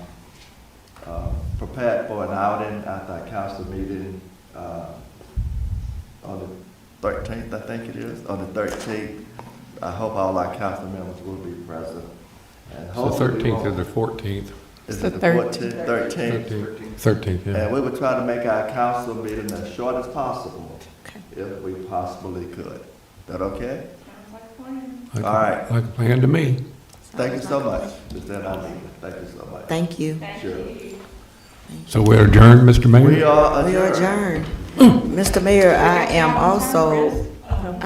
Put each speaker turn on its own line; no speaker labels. uh, prepared for an outing at that council meeting, uh, on the thirteenth, I think it is, on the thirteenth. I hope all our council members will be present. and
It's the
hopefully we
thirteenth or
won't-
the fourteenth,
Is
The
it the
13th.
fourteenth, thirteenth?
thirteenth,
And
yeah.
we would try to make our council meeting as short as possible, if we possibly could. That okay?
Like a-
all right.
Like a plan to me.
Thank you so much, Ms. Anita. Thank you so much.
Thank you.
Sure.
So we're adjourned, Mr. Mayor?
We are
We are
adjourned.
adjourned. Mr. Mayor, I am also